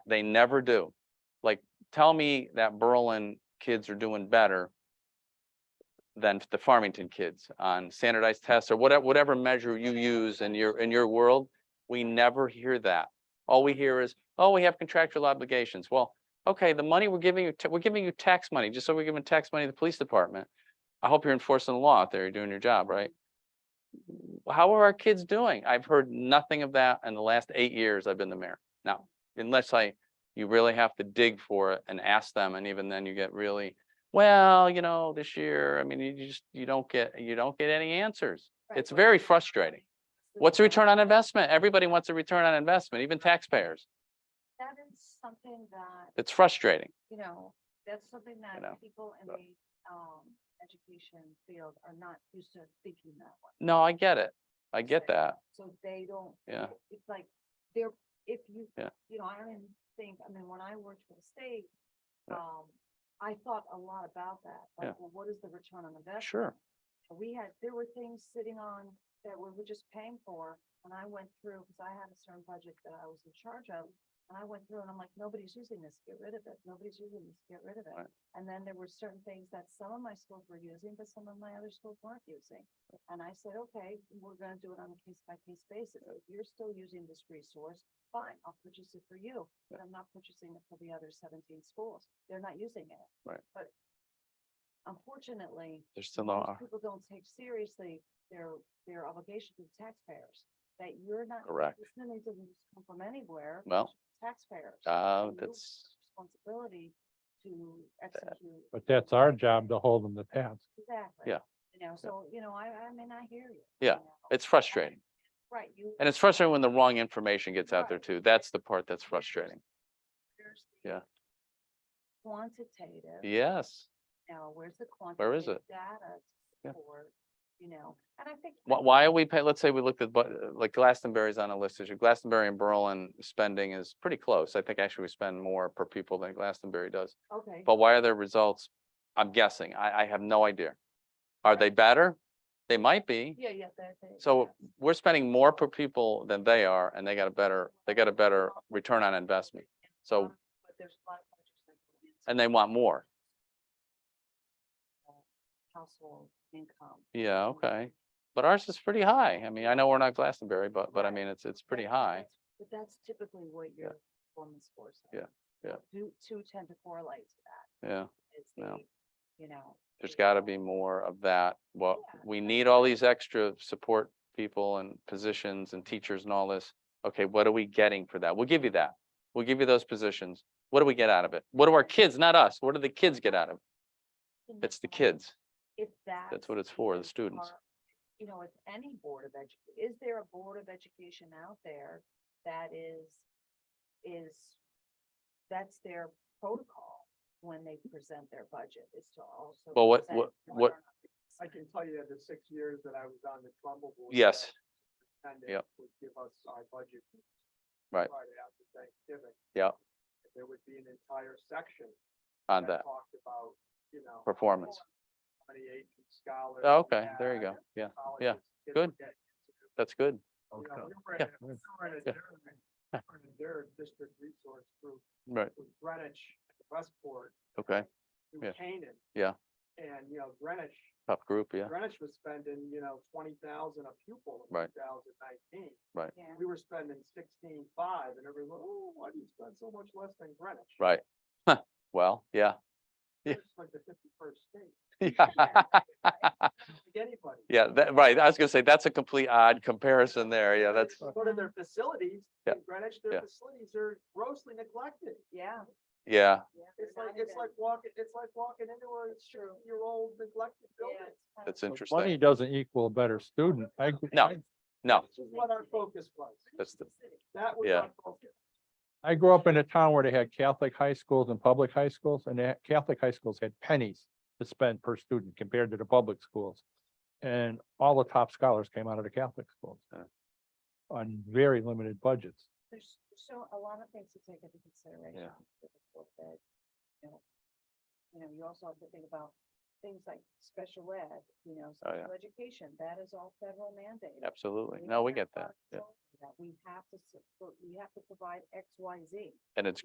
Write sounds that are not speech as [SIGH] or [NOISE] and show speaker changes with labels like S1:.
S1: They never do. Like, tell me that Berlin kids are doing better than the Farmington kids on standardized tests or whatever, whatever measure you use in your, in your world. We never hear that. All we hear is, oh, we have contractual obligations. Well, okay, the money we're giving you, ta- we're giving you tax money, just so we're giving tax money to the police department. I hope you're enforcing the law out there, you're doing your job, right? How are our kids doing? I've heard nothing of that in the last eight years I've been the mayor. Now, unless I, you really have to dig for it and ask them, and even then you get really, well, you know, this year, I mean, you just, you don't get, you don't get any answers.
S2: Right,
S1: It's
S2: what's
S1: very
S2: the-
S1: frustrating. What's the return on investment? Everybody wants a return on investment, even taxpayers.
S2: That is something that,
S1: It's frustrating.
S2: you know, that's something
S1: know,
S2: that people in
S1: but-
S2: the, um, education field are not used to thinking that way.
S1: No, I get it. I
S2: It's
S1: get
S2: like-
S1: that.
S2: So they don't.
S1: Yeah.
S2: It's like, they're, if you,
S1: Yeah.
S2: you know, I don't even think, I mean, when I worked for the state,
S1: Yeah.
S2: um, I thought a lot about that.
S1: Yeah.
S2: Like, well, what is the return on investment?
S1: Sure.
S2: And We had, there were things sitting on that we were just paying for, and I went through, because I had a certain budget that I was in charge of. And I went through and I'm like, nobody's using this, get rid of it, nobody's using this, get rid of it.
S1: Right.
S2: And then there were certain things that some of my schools were using, but some of my other schools weren't using. And I said, okay, we're gonna do it on a case by case basis, if you're still using this resource, fine, I'll purchase it for you. But I'm not purchasing it for the other seventeen schools, they're not using it.
S1: Right.
S2: But unfortunately,
S1: There's still
S2: most
S1: no,
S2: People don't take seriously their, their obligation to the taxpayers, that you're not.
S1: Correct.
S2: This money doesn't just come from anywhere.
S1: well,
S2: Taxpayers.
S1: uh,
S2: and you have
S1: that's,
S2: Responsibility to execute.
S3: But that's our job to hold them to task.
S2: Exactly.
S1: Yeah.
S2: You know, so, you know, I, I mean, I hear you.
S1: Yeah,
S2: you know.
S1: it's frustrating.
S2: Right, you.
S1: And it's frustrating when the wrong information gets out there
S2: Right.
S1: too. That's the part that's frustrating.
S2: there's the
S1: yeah.
S2: Quantitative.
S1: Yes.
S2: Now, where's the quantitative?
S1: Where is it?
S2: Data
S1: Yeah.
S2: for, you know, and I think.
S1: Why, why are we paying, let's say we looked at, bu- like Glastonbury's on a list issue. Glastonbury and Berlin spending is pretty close. I think actually we spend more per people than Glastonbury does.
S2: Okay.
S1: But why are their results? I'm guessing. I, I have no idea. Are
S2: Right.
S1: they better? They might be.
S2: Yeah, yeah, that. that-
S1: So
S2: yeah.
S1: we're spending more per people than they are and they got a better, they got a better return on investment. So,
S2: But there's a lot of factors that go into
S1: and they want more.
S2: Household income.
S1: Yeah, okay. But ours is pretty high. I mean, I know we're not Glastonbury, but, but I mean, it's, it's pretty
S2: That-
S1: high.
S2: that's- But that's typically what your performance scores. are.
S1: Yeah, yeah.
S2: Do, two tend to correlate to that.
S1: Yeah,
S2: It's
S1: Yeah.
S2: the, you know.
S1: there's
S2: the,
S1: gotta be
S2: um,
S1: more of that. Well,
S2: Yeah,
S1: we need all these extra support people and positions and teachers and all this. Okay, what are we getting for that? We'll give you that. We'll give you those positions. What do we get out of it? What do our kids, not us, what do the kids get out of it?
S2: in
S1: It's the
S2: time.
S1: kids.
S2: If that.
S1: what it's for, the students.
S2: You know, if any board of edu, is there a board of education out there that is, is, that's their protocol when they present their budget is to also.
S1: Well, what-
S2: present
S1: what-
S2: whether
S1: what-
S2: or not
S4: I can tell you that the six years that I was on the Trumbull board.
S1: Yes.
S4: And
S1: Yep.
S4: would give us our budget.
S1: Right.
S4: Friday after Thanksgiving.
S1: Yep.
S4: There would be an entire section.
S1: on that
S4: Talked about, you know.
S1: performance.
S4: How many Aiken scholars.
S1: Oh,
S4: we
S1: Okay, there you
S4: had,
S1: go. Yeah,
S4: how many
S1: yeah,
S4: colleges kids
S1: good.
S4: were getting into.
S1: that's good.
S4: You know, we were
S1: Yeah.
S4: in a- we were in a
S1: Yeah.
S4: Durham- we were in a Durham district resource group
S1: Right,
S4: with Greenwich, Westport,
S1: okay. Yeah.
S4: through Canaan.
S1: Yeah.
S4: And, you know, Greenwich
S1: Top group, yeah.
S4: Greenwich was spending, you know, twenty thousand a pupil in
S1: Right.
S4: two thousand nineteen.
S2: Yeah.
S4: We were spending sixteen five and everyone, oh, why do you spend so much less than Greenwich?
S1: Right. Huh, Well, yeah. [LAUGHS] Yeah.
S4: It's like the fifty-first state, Like anybody.
S1: Yeah, that, right. I was gonna say, that's a complete odd comparison there. Yeah, that's,
S4: You Go to their facilities,
S1: Yeah.
S4: in Greenwich,
S1: Yeah.
S4: their facilities are grossly neglected.
S2: Yeah.
S1: yeah,
S2: yeah, they're
S4: It's like,
S2: not
S4: it's
S2: even-
S4: like walking, it's like walking into a year-old neglected
S2: Yeah,
S4: building.
S2: it's kind
S1: that's
S2: of-
S3: Money
S1: interesting.
S3: doesn't equal a better student. I-
S1: No.
S3: I-
S1: No,
S4: This is what our focus was.
S1: that's the,
S4: That was
S1: Yeah.
S4: our focus.
S3: I grew up in a town where they had Catholic high schools and public high schools, and the Catholic high schools had pennies to spend per student compared to the public schools. And all the top scholars came out of the Catholic schools
S1: Yeah.
S3: on very limited budgets.
S2: There's so a lot of things to take into consideration. with the board that, You know, you know, you also have to think about things like special ed, you know,
S1: Oh, yeah.
S2: special education, that is all federal mandated.
S1: absolutely.
S2: We
S1: No, we
S2: can't
S1: get that.
S2: not
S1: Yeah.
S2: solve for that. We have to, support- we have to provide X, Y, Z.
S1: And it's